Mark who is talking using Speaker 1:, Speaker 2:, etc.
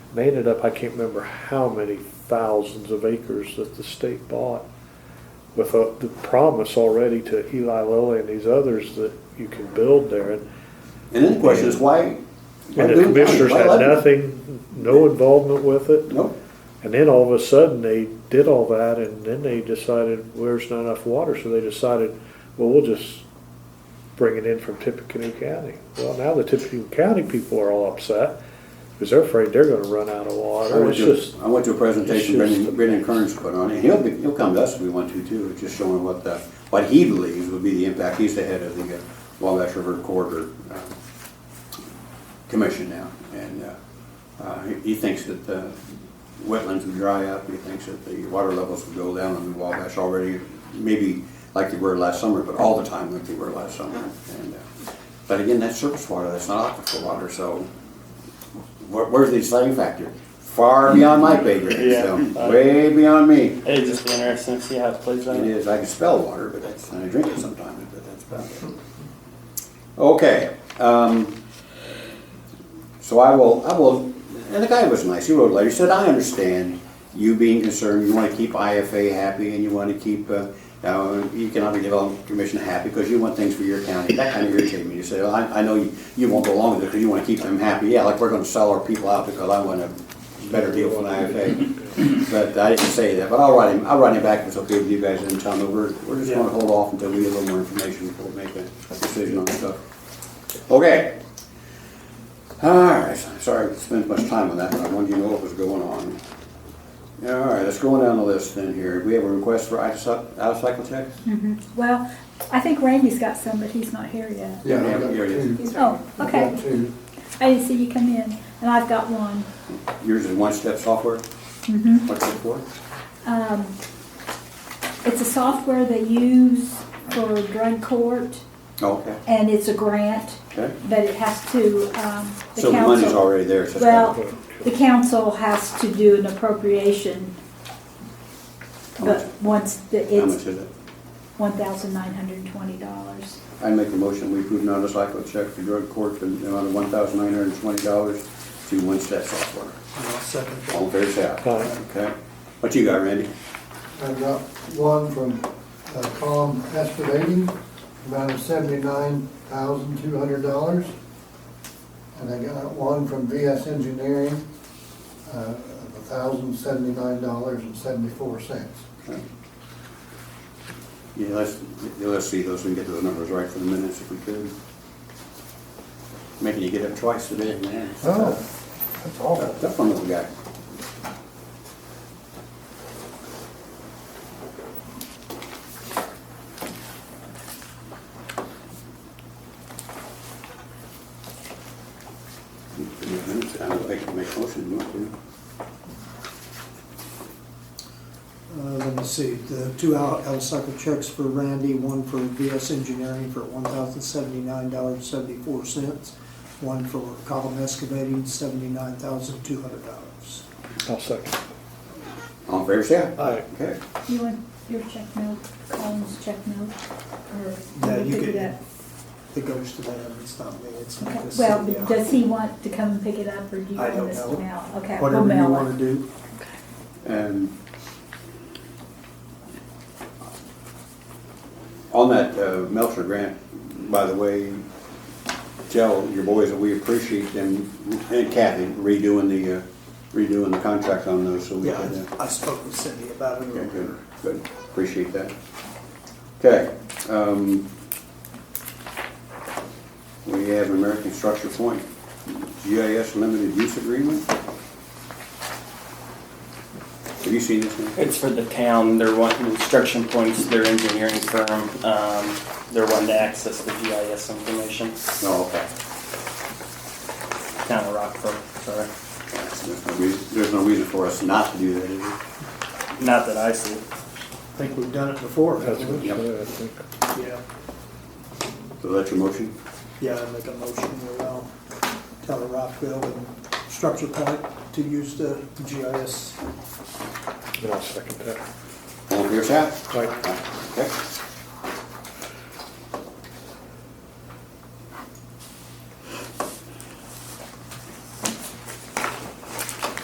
Speaker 1: They ended up, I can't remember how many thousands of acres that the state bought with a, the promise already to Eli Lilly and these others that you can build there. And,
Speaker 2: And then the question is why? why
Speaker 1: and the
Speaker 2: Boone County?
Speaker 1: commissioners
Speaker 2: Why
Speaker 1: had
Speaker 2: Lebanon?
Speaker 1: nothing, no involvement with it.
Speaker 2: Nope.
Speaker 1: And then all of a sudden they did all that and then they decided well, there's not enough water. So they decided, well, we'll just bring it in from Tippecanoe County. Well, now the Tippecanoe County people are all upset because they're afraid they're going to run out of
Speaker 2: I
Speaker 1: water.
Speaker 2: went
Speaker 1: It's
Speaker 2: to,
Speaker 1: just,
Speaker 2: I went to a presentation
Speaker 1: it's just
Speaker 2: Brendan,
Speaker 1: the-
Speaker 2: Brendan Kearns put on, and he'll be, he'll come to us if we want to too, just showing what the, what he believes would be the impact. He's the head of the uh, Wabash River Corridor uh, Commission now, and uh, uh, he- he thinks that the wetlands would dry up, he thinks that the water levels would go down in the Wabash already, maybe like they were last summer, but all the time like they were last summer. And, uh, But again, that's surface water, that's not aquifer water, so where, where's the deciding factor? Far beyond my pay grade, so
Speaker 3: Yeah.
Speaker 2: way beyond me.
Speaker 3: It'd just be interesting to see how it plays out.
Speaker 2: It is, I can spell water, but that's, and I drink it sometimes, but that's about it. Okay, um, so I will, I will, and the guy was nice, he wrote a letter, he said, I understand you being concerned, you wanna keep IFA happy and you wanna keep, uh, uh, Economic Development Commission happy because you want things for your county, that kinda irritated me, you say, well, I, I know you, you won't go along with it because you wanna keep them happy, yeah, like we're gonna sell our people out because I want a better deal from IFA. But I didn't say that, but I'll write him, I'll write him back if it's okay with you guys and tell him, that we're, we're just gonna hold off until we get a little more information before we make a decision on stuff. Okay, all right, sorry I spent much time on that, but I wanted you to know what was going on. All right, let's go on down the list then here. We have a request for out of cycle checks?
Speaker 4: Mm-hmm. Well, I think Randy's got some, but he's not here yet.
Speaker 5: Yeah, I've
Speaker 2: Yeah,
Speaker 5: got
Speaker 2: here it
Speaker 5: two.
Speaker 2: is.
Speaker 4: Oh,
Speaker 5: I've
Speaker 4: okay.
Speaker 5: got two.
Speaker 4: I didn't see you come in, and I've got one.
Speaker 2: Yours is one-step software?
Speaker 4: Mhm.
Speaker 2: What's it for?
Speaker 4: Um, It's a software they use for drug court,
Speaker 2: Oh, Okay,
Speaker 4: and it's a grant,
Speaker 2: okay.
Speaker 4: but it has to, um, the
Speaker 2: So the money's
Speaker 4: council,
Speaker 2: already there, so it's
Speaker 4: Well-
Speaker 2: kind
Speaker 4: the council has to do an appropriation,
Speaker 2: How much?
Speaker 4: but once, the-
Speaker 2: of- how much
Speaker 4: it's
Speaker 2: is it?
Speaker 4: $1,920.
Speaker 2: I make a motion, we approve out of cycle check for drug court for the amount of one thousand nine hundred and twenty dollars to one-step software.
Speaker 5: And I'll second that.
Speaker 2: All in favor, say aye.
Speaker 1: uh,
Speaker 2: Okay. What you got, Randy?
Speaker 5: I've got one from uh, Tom Espadating, amount of seventy-nine thousand two hundred dollars. And I got one from VS Engineering, uh, of thousand seventy-nine dollars and seventy-four cents.
Speaker 2: Yeah, let's, yeah, let's see those, we can get those numbers right for the minutes if we could. Making you get up twice today, man.
Speaker 5: Oh, that's
Speaker 2: Tough one, little guy. I'll make, make a motion, you want to?
Speaker 6: Uh, Let me see, the two out, out of cycle checks for Randy, one for VS Engineering for one thousand seventy-nine dollars seventy-four cents, one for column excavating, seventy-nine thousand two hundred dollars.
Speaker 1: I'll second.
Speaker 2: All in favor, say aye.
Speaker 1: Aye.
Speaker 2: Okay.
Speaker 4: You want your check note, Colin's check note, or?
Speaker 6: Yeah,
Speaker 4: we'll
Speaker 6: you
Speaker 4: figure
Speaker 6: can-
Speaker 4: that-
Speaker 6: It goes to them, it's not me, it's not
Speaker 4: Okay,
Speaker 6: this.
Speaker 4: well,
Speaker 6: yeah.
Speaker 4: does he want to come and pick it up, or do you
Speaker 6: I
Speaker 4: want
Speaker 6: don't
Speaker 4: us to
Speaker 6: know.
Speaker 4: mail? Okay, we'll
Speaker 6: Whatever you
Speaker 4: mail
Speaker 6: wanna
Speaker 4: it.
Speaker 6: do.
Speaker 2: And on that uh, Melcher grant, by the way, tell your boys that we appreciate them and Kathy redoing the, uh, redoing the contract on those, so we
Speaker 6: Yeah,
Speaker 2: can. uh,
Speaker 6: I I spoke with Cindy about it
Speaker 2: Okay,
Speaker 6: earlier.
Speaker 2: good, good, appreciate that. Okay, um, we have American Structure Point, GIS Limited Use Agreement. Have you seen this one?
Speaker 3: It's for the town, they're wanting instruction points, their engineering firm, um, they're wanting to access the GIS information,
Speaker 2: Oh, okay.
Speaker 3: town of Rockford, sorry.
Speaker 2: There's no reason, there's no reason for us not to do that, is there?
Speaker 3: Not that I see.
Speaker 6: I think we've done it before.
Speaker 1: That's
Speaker 6: haven't
Speaker 1: what
Speaker 6: we?
Speaker 1: you said, I think.
Speaker 6: Yeah,
Speaker 2: So that's your motion?
Speaker 6: yeah, I make a motion to allow Tyler Rockville and Structure Point to use the GIS
Speaker 1: And I'll second that.
Speaker 2: All in favor, say aye.
Speaker 1: Aye.
Speaker 2: Okay.